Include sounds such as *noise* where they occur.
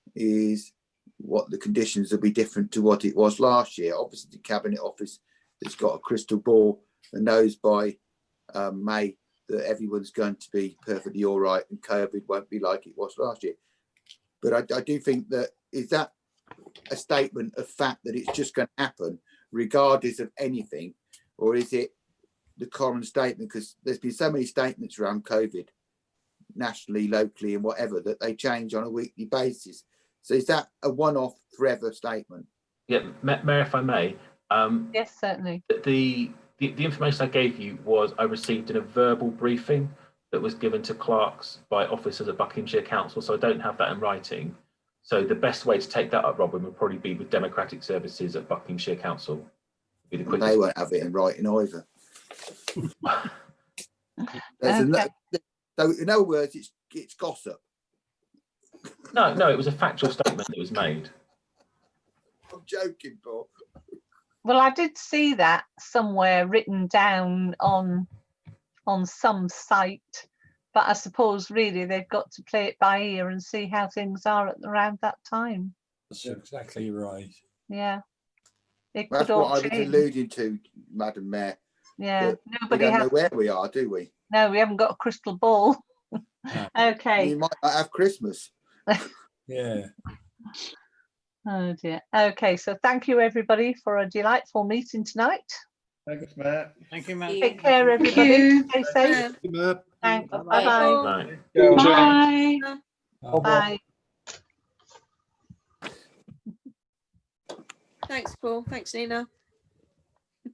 is what the conditions will be different to what it was last year. Obviously, the Cabinet Office has got a crystal ball and knows by um, May that everyone's going to be perfectly all right and COVID won't be like it was last year. But I, I do think that is that a statement of fact that it's just going to happen regardless of anything, or is it the common statement? Because there's been so many statements around COVID nationally, locally, and whatever that they change on a weekly basis. So is that a one-off forever statement? Yeah, Ma- Mayor, if I may, um, Yes, certainly. th- the, the the information I gave you was I received in a verbal briefing that was given to clerks by officers at Buckinghamshire Council, so I don't have that in writing. So the best way to take that up, Robin, would probably be with Democratic Services at Buckinghamshire Council. Be the They quickest. won't have it in writing either. There's ano- So in other words, it's it's gossip. No, no, it was a factual statement that was made. I'm joking, Paul. Well, I did see that somewhere written down on on some site, but I suppose really they've got to play it by ear and see how things are at around that time. That's exactly right. Yeah. It That's could what I all was change. alluding to, Madam Mayor. Yeah. We Nobody don't know has, where we are, do we? no, we haven't got a crystal ball. *laughs* No. We Okay. might not have Christmas. Yeah. Oh dear. Okay. So thank you everybody for a delightful meeting tonight. Thanks, Matt. Thank you, Thank Matt. Take care, everybody. Stay safe. Thank you, Matt. Thanks. Bye-bye. Bye-bye. No. Bye. Um, Bye. Thanks, Paul. Thanks, Nina.